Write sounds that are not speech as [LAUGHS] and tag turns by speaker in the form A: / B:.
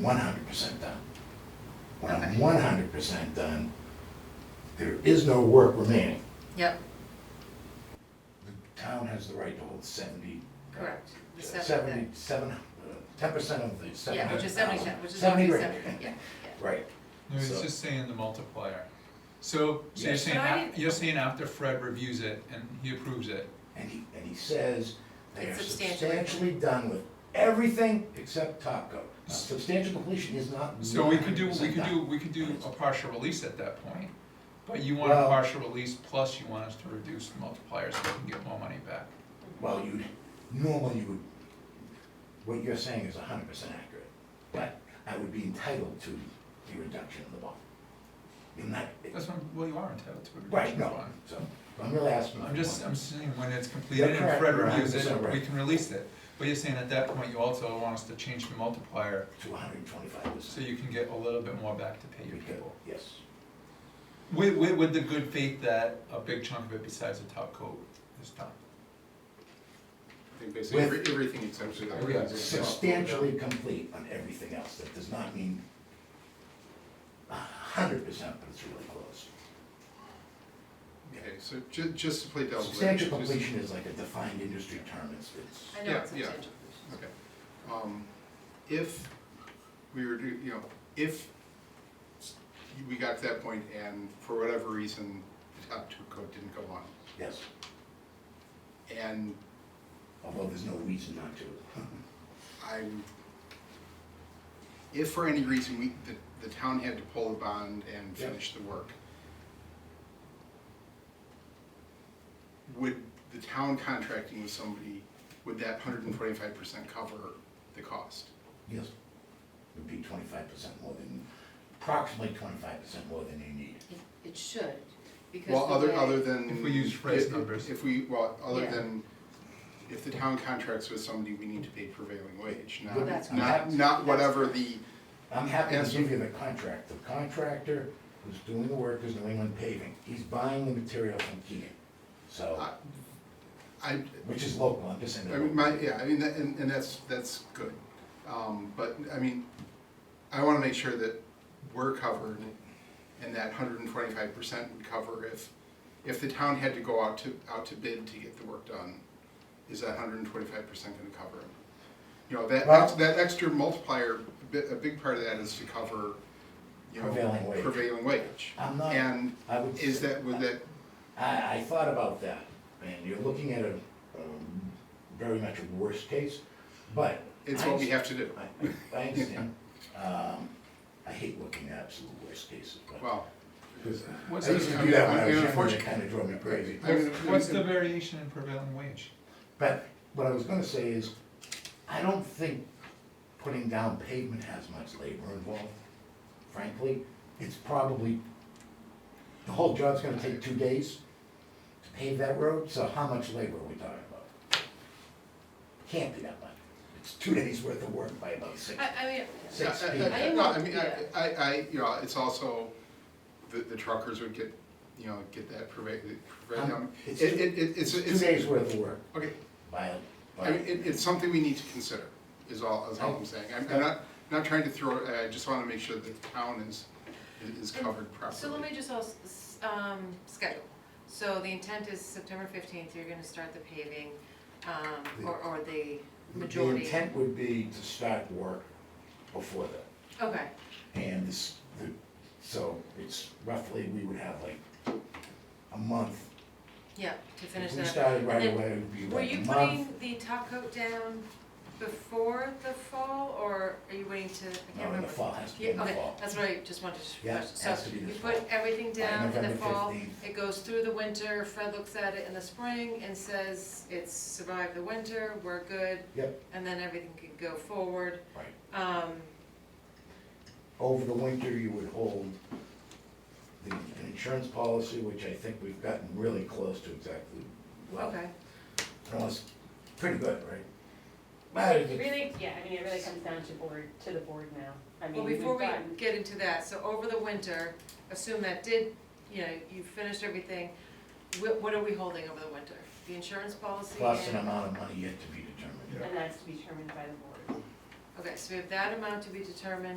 A: one hundred percent done. When I'm
B: Okay.
A: one hundred percent done, there is no work remaining.
B: Yep,
A: The town has the right to hold seventy. uh,
B: Correct. The seven-
A: Seventy, seven, uh, ten percent of the seven
B: yeah,
A: hundred
B: which is seventy,
A: thousand.
B: which is roughly
A: grand.
B: seventy, yeah, yeah.
A: Right,
C: No, it's
A: So-
C: just saying the multiplier. So, so you're
A: Yes.
C: saying,
D: But I
C: af- you're saying after Fred reviews it and he approves it,
A: and he, and he says they are
B: It's substantially-
A: substantially done with everything except top coat. Now, Substantial completion is not
C: so we could do, we
A: 100%
C: could
A: done.
C: do, we could do a partial release at that point. But you want a
A: Well-
C: partial release, plus you want us to reduce the multiplier so we can get more money back.
A: Well, you, normally you would, what you're saying is hundred percent accurate, but I would be entitled to the reduction of the bond. You're not,
C: That's what, I'm- well, you are entitled to a
A: right,
C: reduction of
A: no,
C: bond.
A: so, I'm really asking.
C: I'm just, I'm saying when it's completed
A: You're
C: and
A: correct,
C: Fred
A: you're
C: reviews it,
A: 100%
C: we
A: right.
C: can release it. But you're saying at that point, you also want us to change the multiplier
A: To hundred and twenty-five
C: so
A: percent.
C: you can get a little bit more back to pay your people.
A: Yes,
C: With, with, with the good faith that a big chunk of it besides the top coat is done.
E: I think basically
A: With-
E: every- everything except for that.
C: Yeah,
E: is- is-
A: substantially complete on everything else, that does not mean hundred percent, but it's really close.
E: Okay, so ju- just to play devil's.
A: Substantial
E: advocate, just-
A: completion is like a defined industry term, it's, it's.
B: I know
E: Yeah,
B: it's
E: yeah.
B: substantial.
E: Okay. Um, If we were to, you know, if we got to that point and for whatever reason, the top two coat didn't go on,
A: Yes,
E: and
A: although there's no reason not to. [LAUGHS]
E: I'm, if for any reason we, the, the town had to pull the bond and
A: Yeah.
E: finish the work, would the town contracting with somebody, would that hundred and twenty-five percent cover the cost?
A: Yes. Would be twenty-five percent more than, approximately twenty-five percent more than you need.
B: It, it should, because
E: Well,
B: the
E: other, other
B: way,
E: than.
C: If we use Fred's
E: if-
C: numbers.
E: If we, well, other
B: Yeah.
E: than, if the town contracts with somebody, we need to pay prevailing wage,
A: Well,
B: that's
E: not, not,
A: correct.
E: not
B: That's
E: whatever
B: correct.
E: the,
A: I'm happy to
E: Yes.
A: give you the contract, the contractor who's doing the work is New England Paving, he's buying the material from Keegan, so,
E: I, I,
A: which is local, I'm just saying.
E: Uh, I mean, my, yeah, I mean, that- and, and that's, that's good. Um, but, I mean, I wanna make sure that we're covered and that hundred and twenty-five percent would cover if, if the town had to go out to, out to bid to get the work done, is that hundred and twenty-five percent gonna cover it? You know, that,
A: Well-
E: ex- that extra multiplier, a bit, a big part of that is to cover, you know.
A: Prevailing wage.
E: Prevailing wage.
A: I'm not-
E: And
A: I would
E: is
A: say-
E: that, would that,
A: I, I thought about that, and you're looking at a, um, very much a worst case, but.
E: it's
A: I
E: what we
A: understand-
E: have to do.
A: I, I understand, um, I hate looking at absolute worst cases, but.
E: Well,
A: Because I
C: What's
A: used
C: the-
A: to do that when I
E: I
A: was younger,
E: mean,
A: and it
E: unfortunately-
A: kinda drove me crazy.
E: I mean,
C: What's
E: we
C: the
E: can-
C: variation in prevailing wage?
A: But what I was gonna say is, I don't think putting down pavement has much labor involved, frankly. It's probably, the whole job's gonna take two days to pave that road, so how much labor are we talking about? Can't be that much. It's two days worth of work by about six.
B: I, I mean,
E: Yeah,
A: Six
E: I- I-
A: feet.
E: I-
B: I
E: No,
B: am-
E: I mean,
B: yeah.
E: I, I, I- you know, it's also, the, the truckers would get, you know, get that pervade, pervade,
A: Um,
E: um, it,
A: it's
E: it,
A: two-
E: it-
A: It's
E: it's,
A: two
E: it's,
A: days worth of work
E: okay,
A: by,
E: I mean,
A: by,
E: it, it's something we need to consider, is all, is all I'm saying, I'm, I'm not, not trying to throw, I just wanna make sure that the town is, is covered properly.
B: so let me just also, s- um, schedule. So the intent is September fifteenth, you're gonna start the paving, um, or, or the
A: the
B: majority.
A: intent would be to start work before that.
B: Okay,
A: And this, the, so it's roughly, we would have like a month.
B: yeah, to finish
A: If
B: that.
A: we started right
B: And
A: away, it would be
B: Were
A: like a
B: you
A: month.
B: putting the top coat down before the fall, or are you waiting to, I
A: No, in
B: can't
A: the
B: remember?
A: fall, has to be in
B: Yeah,
A: the
B: okay,
A: fall.
B: that's what I just wanted to
A: Yeah,
B: question.
A: has to be this
B: So you
A: fall.
B: put everything
A: By
B: down in the
A: November
B: fall,
A: 15th.
B: it goes through the winter, Fred looks at it in the spring and says, it's survived the winter, we're good,
A: Yep,
B: and then everything could go forward.
A: right.
B: Um,
A: Over the winter, you would hold the an insurance policy, which I think we've gotten really close to exactly, well,
B: okay,
A: almost pretty good, right? But it-
D: Really, yeah, I mean, it really comes down to board, to the board now. I mean,
B: well,
D: we've
B: before we
D: gotten,
B: get into that, so over the winter, assume that did, you know, you finished everything, what, what are we holding over the winter? The insurance policy
A: plus an
B: and-
A: amount of money yet to be determined.
C: Yeah.
D: and that's to be determined by the board.
B: Okay, so we have that amount to be determined.